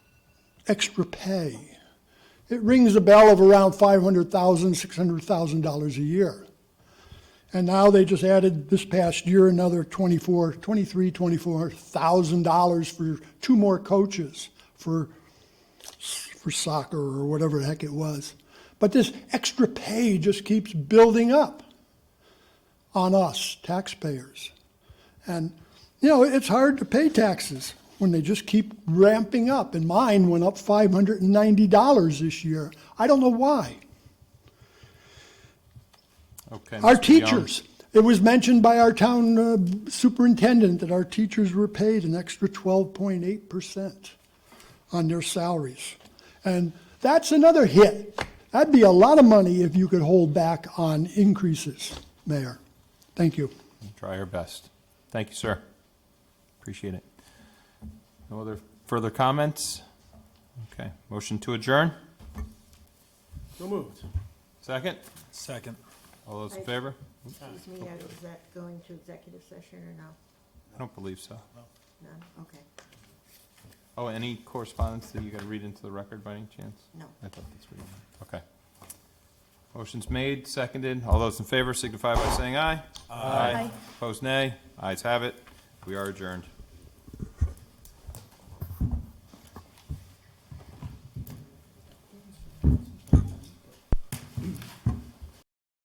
extra pay. It rings a bell of around $500,000, $600,000 a year. And now they just added this past year another 24, 23, 24,000 dollars for two more coaches for for soccer or whatever the heck it was. But this extra pay just keeps building up on us taxpayers. And you know, it's hard to pay taxes when they just keep ramping up. And mine went up $590 this year. I don't know why. Okay. Our Mr. Young. teachers. It was mentioned by our town uh, superintendent that our teachers were paid an extra 12.8% on their salaries. And that's another hit. That'd be a lot of money if you could hold back on increases, Mayor. Thank you. Try your best. Thank you, sir. Appreciate it. No other further comments? Okay, motion to adjourn? So moved. Second? Second. All those in favor? Excuse me, uh, is that going to executive session or no? I don't believe so. None? Okay, Oh, any correspondence that you gotta read into the record by any chance? no. I thought that's what you meant. Okay. Motion's made, seconded. All those in favor signify by saying aye. Aye. Opposed, nay. Ayes have it. We are adjourned.